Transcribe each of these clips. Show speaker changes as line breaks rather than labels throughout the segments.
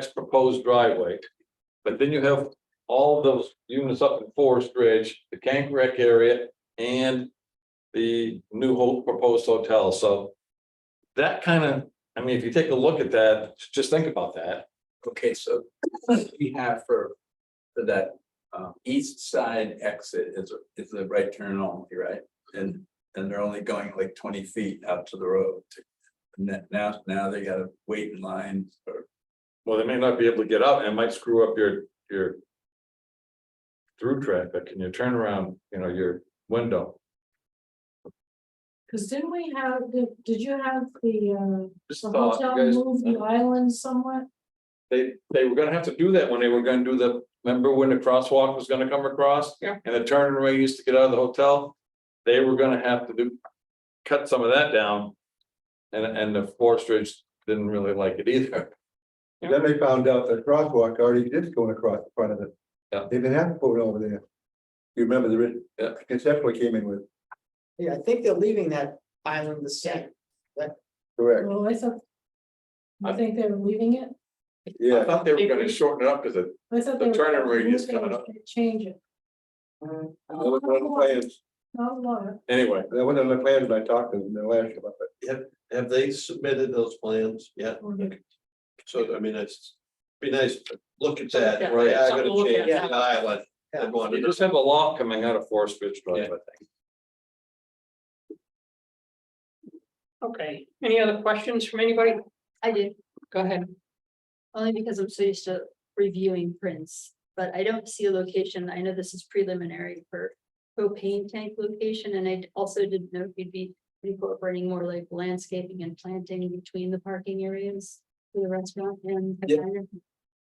next proposed driveway. But then you have all of those units up in Forest Ridge, the Kank area, and the new ho- proposed hotel, so that kind of, I mean, if you take a look at that, just think about that.
Okay, so we have for, for that, um, east side exit is, is the right turn only, right? And, and they're only going like twenty feet out to the road. to- and that- Now, now they gotta wait in line or,
Well, they may not be able to get out and it might screw up your, your through traffic and your turnaround, you know, your window.
Cause didn't we have, did, did you have the,
Just
uh, the
thought,
hotel move
you
the
guys,
island somewhat?
they, they were gonna have to do that when they were gonna do the, remember when the crosswalk was gonna come across?
Yeah.
And the turn and radius to get out of the hotel, they were gonna have to do, cut some of that down. And, and the Forest Ridge didn't really like it either.
Then they found out that crosswalk already is going across the front of it.
Yeah.
They didn't have to put it over there. You remember the, ri-
Yeah.
concept we came in with,
Yeah, I think they're leaving that island the same.
correct?
Well, I thought. I
I-
think they were leaving it.
I
Yeah,
thought they were gonna shorten it up because it,
I thought
The
they were-
turn radius
they were
coming up.
gonna Change it.
that was one of the plans,
Not a lot.
anyway,
that was one of the plans when I talked to them, they last about it.
Have they submitted those plans yet? So, I mean, it's, be nice to look at that,
Yeah,
right? I'm
something to
gonna
look
change
at.
the island.
Yeah.
I'm going
you
to-
just have a lot coming out of Forest Ridge Drive, I think.
Okay, any other questions from anybody?
I do,
Go ahead.
only because I'm so used to reviewing prints, but I don't see a location. I know this is preliminary for propane tank location, and I also didn't know if you'd be incorporating more like landscaping and planting between the parking areas for the restaurant and. the
Yeah.
diner.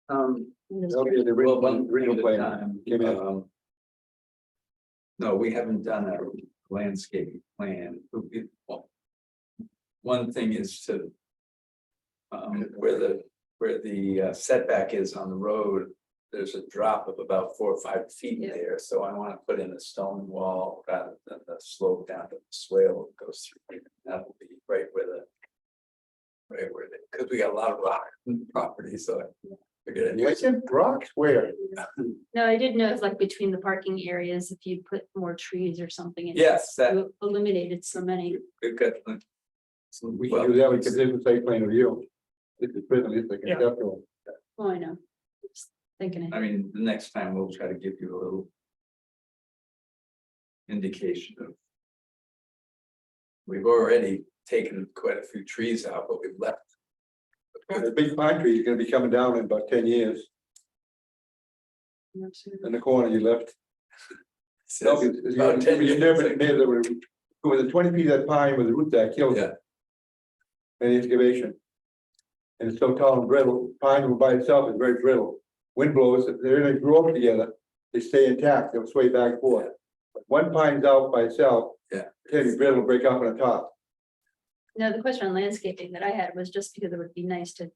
um,
And those-
That'll be the
well,
original,
one
original
thing at a
plan.
time.
Give me a-
um, No, we haven't done a landscaping plan. We- well, One thing is to. Um, where the, where the uh, setback is on the road, there's a drop of about four or five feet
Yeah.
there, so I wanna put in a stone wall rather than the slope down to the swale that goes through. That will be right where the. Right where the, cause we got a lot of rock property, so. I figured
You said rocks where?
No, I did know it's like between the parking areas, if you put more trees or something. in it,
Yes, that,
you Eliminated so many.
We've got. like, some-
We can do that, we can do the site plan review. This is prison, it's the
Yeah.
conceptual.
Oh, I know. Just Thinking ahead.
I mean, the next time we'll try to give you a little. Indication of. We've already taken quite a few trees out, but we've left.
The big pine tree is gonna be coming down in about ten years,
I'm not sure.
in the corner you left.
since About ten years. ago.
With the twenty feet of that pine with the root that killed it. An excavation. And it's so tall and brittle, pine by itself is very brittle. Wind blows, they're gonna grow up together, they stay intact, they'll sway back and forth. But One pine's out by itself.
Yeah.
it's gonna be brittle, break off on the top.
No, the question on landscaping that I had was just because it would be nice to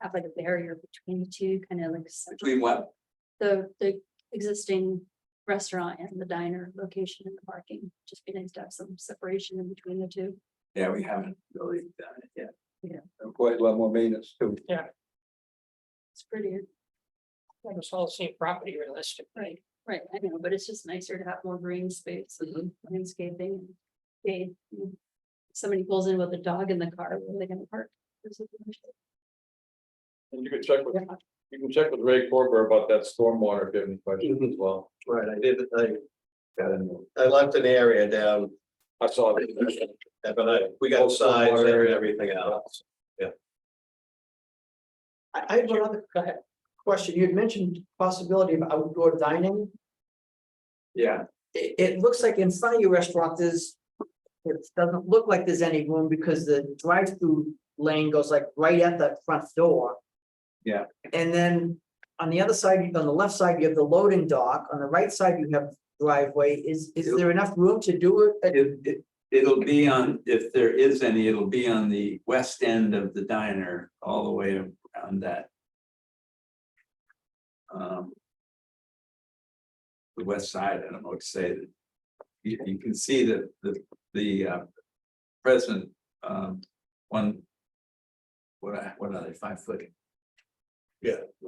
have like a barrier between the two, kind of like s-
Between what?
the, the existing restaurant and the diner location and the parking. Just be nice to have some separation in between the two.
Yeah, we haven't really done it yet.
And quite a lot more maintenance too.
It's prettier,
That was all the same property realistic.
right, right, I know, but it's just nicer to have more green space and landscaping. and shade. Somebody pulls in with a dog in the car, where are they gonna park? There's a-
And you can check with, you can check with Ray Corber about that stormwater, if you have any questions as well.
Right, I did, I,
Got a new-
I left an area down,
I saw that.
but I, we got signs and everything else.
I, I have another
Go ahead.
question. You had mentioned possibility of outdoor dining.
Yeah,
It, it looks like in front of your restaurant, there's, it doesn't look like there's any room because the drive-through lane goes like right at the front door.
Yeah.
And then on the other side, on the left side, you have the loading dock. On the right side, you have driveway. Is, is there enough room to do it?
it, it, it'll be on, if there is any, it'll be on the west end of the diner, all the way around that. Um. The west side, I don't know what to say, you, you can see that the, the, uh, present, um, one. What, I- what are they, five foot?